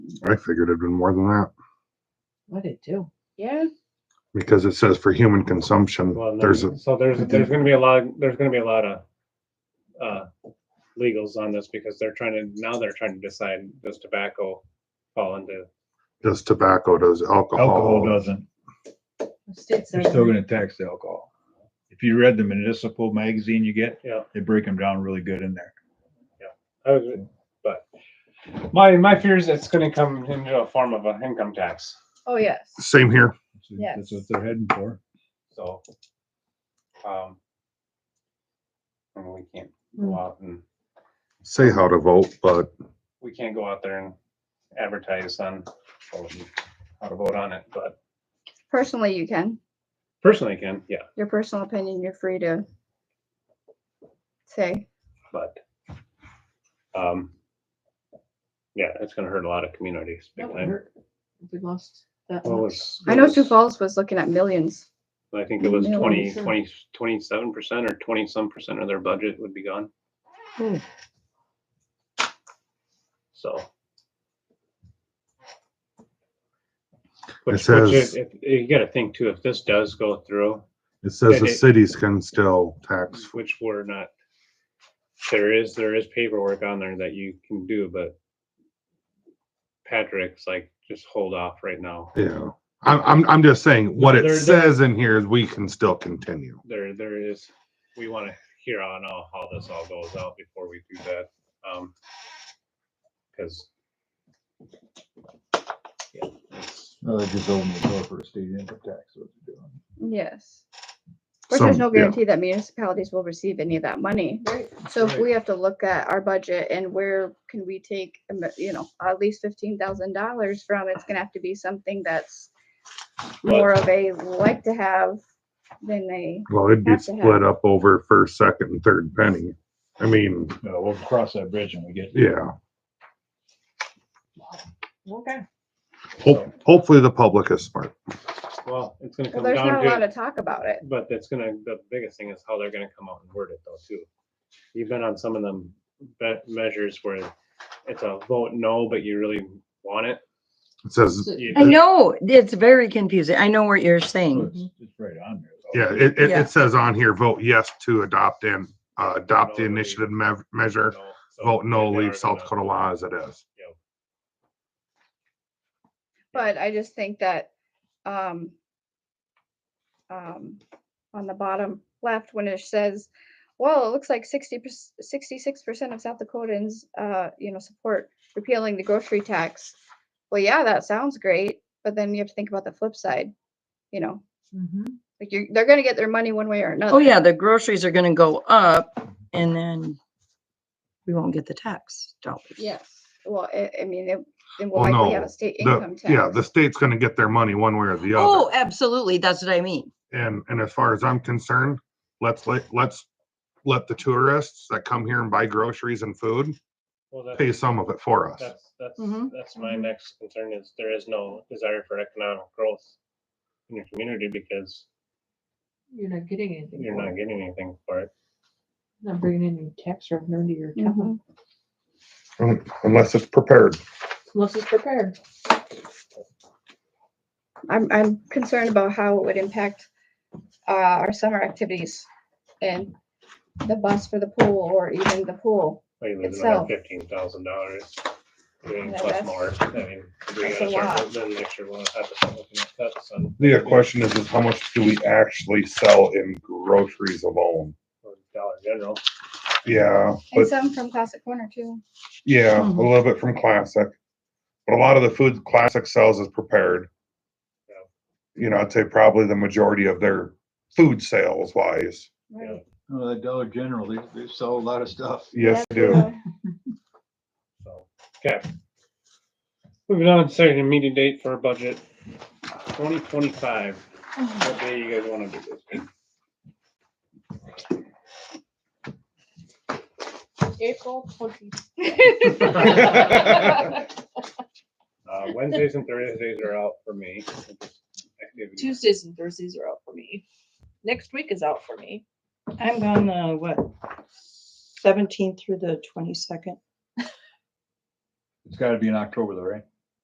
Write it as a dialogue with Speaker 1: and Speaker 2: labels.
Speaker 1: I figured it'd been more than that
Speaker 2: I did too.
Speaker 3: Yeah,
Speaker 1: because it says for human consumption,
Speaker 4: Well, and then-
Speaker 1: there's a,
Speaker 4: so there's, there's gonna be a lot, there's gonna be a lot of, uh, legals on this because they're trying to, now they're trying to decide does tobacco fall into,
Speaker 1: does tobacco, does
Speaker 5: Alcohol
Speaker 1: alcohol.
Speaker 5: doesn't.
Speaker 2: The state
Speaker 5: They're
Speaker 2: says
Speaker 5: still gonna tax the alcohol. If you read the municipal magazine you get,
Speaker 4: Yeah.
Speaker 5: they break them down really good in there.
Speaker 4: I was- uh, but my, my fear is it's gonna come into a form of an income tax,
Speaker 3: oh, yes.
Speaker 1: Same here.
Speaker 5: So That's what they're heading for.
Speaker 4: so. um, and we can't go out and,
Speaker 1: Say how to vote, but
Speaker 4: we can't go out there and advertise on how to vote on it, but
Speaker 3: Personally, you can.
Speaker 4: personally I can, yeah,
Speaker 3: Your personal opinion, you're free to say.
Speaker 4: but um yeah, it's gonna hurt a lot of communities big
Speaker 2: That would
Speaker 4: time.
Speaker 2: hurt if We lost that
Speaker 4: What
Speaker 2: much.
Speaker 4: was-
Speaker 3: I know Sioux Falls was looking at millions.
Speaker 4: I think it was
Speaker 3: Yeah,
Speaker 4: twenty,
Speaker 2: sure.
Speaker 4: twenty, twenty-seven percent or twenty-some percent of their budget would be gone.
Speaker 2: Hmm.
Speaker 4: So.
Speaker 1: It
Speaker 4: Which, which
Speaker 1: says-
Speaker 4: is, if- you gotta think too, if this does go through,
Speaker 1: it says the
Speaker 4: It- it-
Speaker 1: cities can still tax.
Speaker 4: which we're not, there is, there is paperwork on there that you can do, but Patrick's like, just hold off right now.
Speaker 1: Yeah. I'm, I'm, I'm just saying what
Speaker 4: There-
Speaker 1: it
Speaker 4: there-
Speaker 1: says in here is we can still continue.
Speaker 4: There, there is, we wanna hear on all how this all goes out before we do that. Um, cause
Speaker 5: No, they just open the door for a state income tax, what they're doing.
Speaker 3: Yes. Of course, there's
Speaker 1: Some-
Speaker 3: no
Speaker 1: yeah.
Speaker 3: guarantee that municipalities will receive any of that money.
Speaker 2: Right.
Speaker 3: So if
Speaker 4: Right.
Speaker 3: we have to look at our budget and where can we take, a mi- you know, at least fifteen thousand dollars from, it's gonna have to be something that's more of a like to have than a,
Speaker 1: Well, it'd be
Speaker 3: Have to have.
Speaker 1: split up over first, second and third penny. I mean,
Speaker 5: No, we'll cross that bridge when we get. there.
Speaker 1: yeah,
Speaker 2: Okay.
Speaker 1: hope, hopefully the public is smart.
Speaker 4: Well, it's gonna
Speaker 3: well,
Speaker 4: come
Speaker 3: there's
Speaker 4: down
Speaker 3: not a lot
Speaker 4: to,
Speaker 3: of talk about it.
Speaker 4: but that's gonna, the biggest thing is how they're gonna come out and word it though too. You've been on some of them be- measures where it's a vote no, but you really want it.
Speaker 1: It says,
Speaker 4: You-
Speaker 6: I know, it's very confusing. I know what you're saying.
Speaker 5: It's it's right on there. though.
Speaker 1: Mm-hmm. yeah, it, it,
Speaker 6: Yeah.
Speaker 1: it says on here, vote yes to adopt and, uh, adopt the
Speaker 4: No, leave.
Speaker 1: initiative mev- measure.
Speaker 4: No, so
Speaker 1: Vote no,
Speaker 4: they are
Speaker 1: leave South
Speaker 4: gonna-
Speaker 1: Dakota law as it is.
Speaker 4: Yep.
Speaker 3: But I just think that, um, um, on the bottom left, when it says, well, it looks like sixty, sixty-six percent of South Dakotans, uh, you know, support repealing the grocery tax. Well, yeah, that sounds great, but then you have to think about the flip side, you know,
Speaker 2: Mhm.
Speaker 3: like you're, they're gonna get their money one way or another.
Speaker 6: Oh, yeah, the groceries are gonna go up and then we won't get the tax dollars.
Speaker 3: Yes, well, I, I mean, it, then we'll
Speaker 1: Well,
Speaker 3: likely have
Speaker 1: no,
Speaker 3: a state income
Speaker 1: The, yeah, the
Speaker 3: tax.
Speaker 1: state's gonna get their money one way or the
Speaker 6: Oh,
Speaker 1: other.
Speaker 6: absolutely. That's what I mean.
Speaker 1: And, and as far as I'm concerned, let's, let, let's let the tourists that come here and buy groceries and food
Speaker 4: Well, that's-
Speaker 1: pay some of it for us.
Speaker 4: That's, that's,
Speaker 6: Mhm.
Speaker 4: that's my
Speaker 3: Mhm.
Speaker 4: next concern is there is no desire for economic growth in your community because
Speaker 2: You're not getting anything.
Speaker 4: you're
Speaker 2: for
Speaker 4: not
Speaker 2: it.
Speaker 4: getting anything for it.
Speaker 2: Not bringing any tax revenue into your
Speaker 3: Mhm.
Speaker 6: Mm-hmm.
Speaker 2: town
Speaker 1: Unless it's prepared.
Speaker 2: unless it's prepared.
Speaker 3: I'm, I'm concerned about how it would impact uh, our summer activities and the bus for the pool or even the pool.
Speaker 4: Like, there's
Speaker 3: Itself.
Speaker 4: another fifteen thousand dollars.
Speaker 3: Yeah,
Speaker 4: Plus
Speaker 3: that's-
Speaker 4: more, I mean, we
Speaker 3: that's
Speaker 4: gotta
Speaker 3: a
Speaker 4: start,
Speaker 3: lot.
Speaker 4: then next year we'll have to start looking at cuts on.
Speaker 1: The question is, is how much do we actually sell in groceries alone?
Speaker 4: or Dollar General.
Speaker 1: Yeah,
Speaker 3: And
Speaker 1: but
Speaker 3: some from Classic Corner too.
Speaker 1: yeah, a little bit from classic. But a lot of the food classic sells is prepared. You know, I'd say probably the majority of their food sales wise.
Speaker 4: Yeah.
Speaker 3: Right.
Speaker 5: No, that Dollar General, they, they sell a lot of stuff.
Speaker 1: Yes,
Speaker 3: That's
Speaker 1: they do.
Speaker 3: true.
Speaker 4: So, okay. Moving on, setting a meeting date for budget twenty twenty-five.
Speaker 3: Mm-hmm.
Speaker 4: What day you guys wanna do this?
Speaker 2: April twenty.
Speaker 4: Uh, Wednesdays and Thursdays are out for me. Activities.
Speaker 2: Tuesdays and Thursdays are out for me. Next week is out for me.
Speaker 6: I'm gone, uh, what, seventeenth through the twenty-second?
Speaker 5: It's gotta be in October though, right?